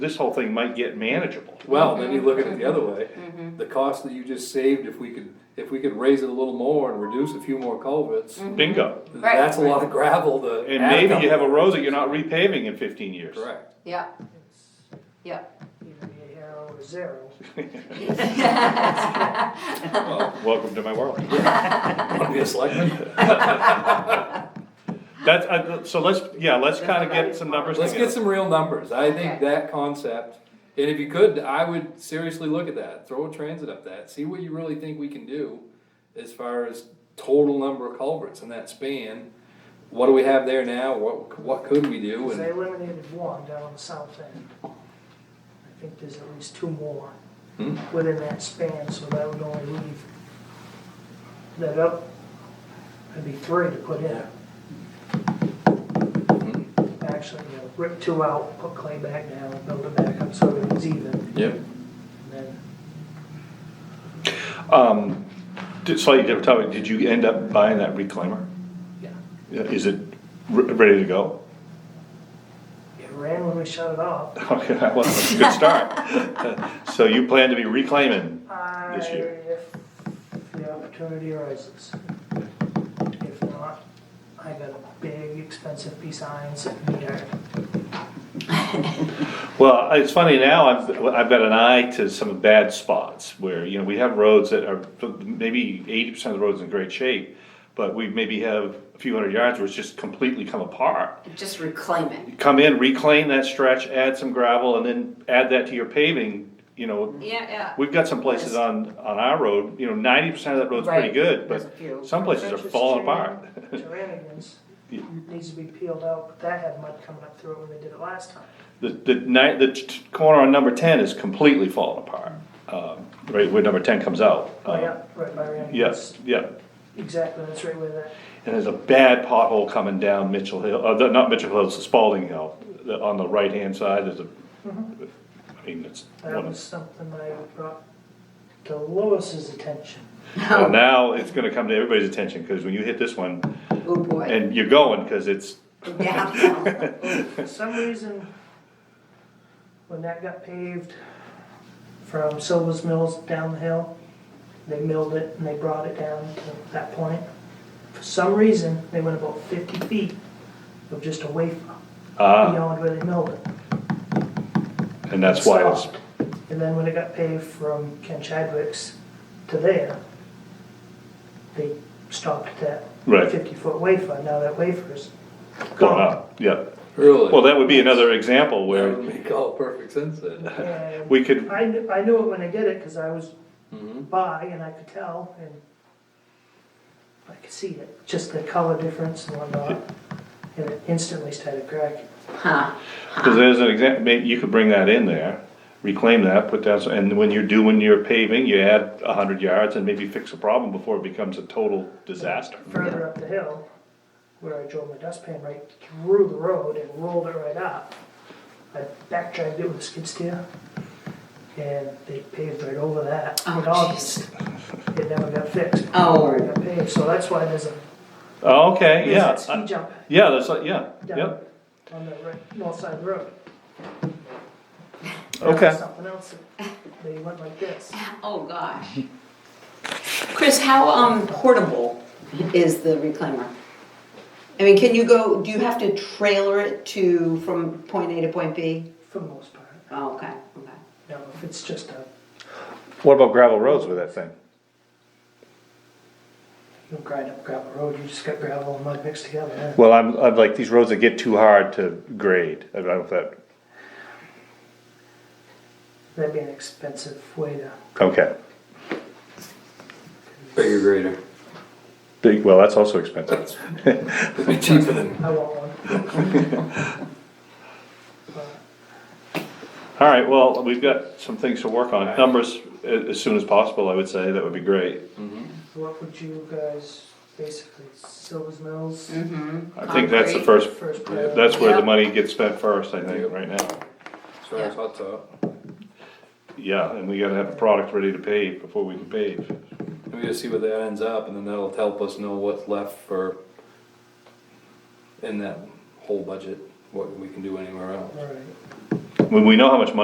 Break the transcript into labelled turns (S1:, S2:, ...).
S1: this whole thing might get manageable.
S2: Well, then you look at it the other way,
S3: Mm-hmm.
S2: the cost that you just saved, if we could, if we could raise it a little more and reduce a few more culverts,
S1: Bingo.
S3: Mm-hmm. Right.
S2: that's a lot of gravel to.
S1: And
S2: add
S1: maybe you have a
S2: up.
S1: road that you're not repaving in fifteen years.
S2: Correct.
S3: Yeah, yeah.
S4: Even the arrow is zero.
S1: Welcome to my world.
S2: Wanna be a selectman?
S1: That's, I, so let's, yeah, let's kinda get some numbers
S2: Let's get
S1: together.
S2: some real numbers, I think
S3: Okay.
S2: that concept, and if you could, I would seriously look at that, throw a transit up that, see what you really think we can do as far as total number of culverts in that span, what do we have there now, what, what could we do,
S4: Because
S2: and.
S4: they eliminated one down on the south end. I think there's at least two more
S2: Hmm.
S4: within that span, so that would only leave that up, maybe three to put in. Actually, you know, rip two out, put clay back down, build it back up so it was even, and
S2: Yep.
S4: then
S1: Um, did- slightly different topic, did you end up buying that reclaimer?
S4: Yeah.
S1: Yeah, Is it re- ready to go?
S4: it ran when we shut it off.
S1: Okay, well, that's a good start. So you plan to be reclaiming?
S4: I,
S1: This year.
S4: if the opportunity arises. If not, I got a big expensive piece of iron sitting here.
S1: Well, it's funny now, I've, I've got an eye to some bad spots where, you know, we have roads that are, maybe eighty percent of the road's in great shape, but we maybe have a few hundred yards where it's just completely come apart.
S3: Just reclaim it.
S1: Come in, reclaim that stretch, add some gravel, and then add that to your paving, you know.
S3: Yeah, yeah.
S1: We've got some places on, on our road, you know, ninety percent of that road's pretty
S3: Right.
S1: good,
S3: There's a
S1: but
S3: few.
S1: some places are falling apart.
S4: Terranigans
S1: Yeah.
S4: needs to be peeled out, but that had mud coming up through it when they did it last time.
S1: The, the night, the t- corner on number ten is completely falling apart, um, right where number ten comes out.
S4: Oh,
S1: Um,
S4: yeah, right by Rannigan's.
S1: Yes, yeah,
S4: Exactly, that's right where that,
S1: and there's a bad pothole coming down Mitchell Hill, uh, the- not Mitchell Hill, it's Spalding Hill, The- on the right-hand side, there's a, I mean, it's,
S4: that
S1: one
S4: was
S1: of-
S4: something I brought to Lois's attention.
S1: well, now it's gonna come to everybody's attention, cause when you hit this one,
S3: Oh, boy.
S1: and you're going, cause it's,
S3: Yeah.
S4: For some reason, when that got paved from Silva's Mills down the hill, they milled it and they brought it down to that point. For some reason, they went about fifty feet of just a wafer
S1: uh,
S4: beyond where they milled it.
S1: and that's why it's,
S4: Stopped. And then when it got paved from Ken Chadwick's to there, they stopped at
S1: Right.
S4: that fifty-foot wafer. Now that wafer's
S1: going
S4: gone.
S1: up, yeah.
S2: Really?
S1: Well, that would be another example
S2: That
S1: where
S2: would make all perfect sense then.
S4: And
S1: we could
S4: I knew, I knew it when I did it, cause I was
S2: Mhm.
S4: by and I could tell and I could see it, just the color difference and whatnot. And it instantly started cracking.
S3: Huh.
S1: Because there's an example, maybe you could bring that in there, reclaim that, put that, and when you're doing your paving, you add a hundred yards and maybe fix a problem before it becomes a total disaster.
S4: Further up the hill, where I drove my dustpan right through the road and rolled it right up, I backdragged it with a skid steer. And they paved right over that
S3: Oh,
S4: in August. It never got fixed.
S3: Oh.
S4: It got paved, so that's why there's a,
S1: Oh, Okay,
S4: there's
S1: yeah,
S4: that ski
S1: I-
S4: jump
S1: yeah, that's like, yeah,
S4: down
S1: yep,
S4: on the right, north side of the road.
S1: okay.
S4: Something else, that they went like this.
S3: Oh, gosh. Chris, how, um, portable is the reclaimer? I mean, can you go, do you have to trailer it to, from point A to point B?
S4: For the most part.
S3: Oh, okay, okay.
S4: Now, if it's just a,
S1: What about gravel roads with that thing?
S4: you know, grind up gravel road, you just got gravel and mud mixed together, yeah.
S1: Well, I'm, I'm like, these roads that get too hard to grade, I don't know if that,
S4: that'd be an expensive way to,
S1: okay.
S2: Bigger grader.
S1: Big, well, that's also expensive.
S2: It'd be cheaper than.
S4: I want one.
S1: All right, well, we've got some things to work on, numbers a- as soon as possible, I would say, that would be great.
S4: What would you guys, basically, Silver's Mills?
S3: Mm-hmm.
S1: I think that's the first,
S4: First priority.
S1: that's where the
S3: Yep.
S1: money gets spent first, I think, right now.
S2: Sorry, I thought so.
S1: Yeah, and we gotta have a product ready to pave before we can pave.
S2: And we just see where that ends up, and then that'll help us know what's left for in that whole budget, what we can do anywhere else.
S4: All right.
S1: When we know how much money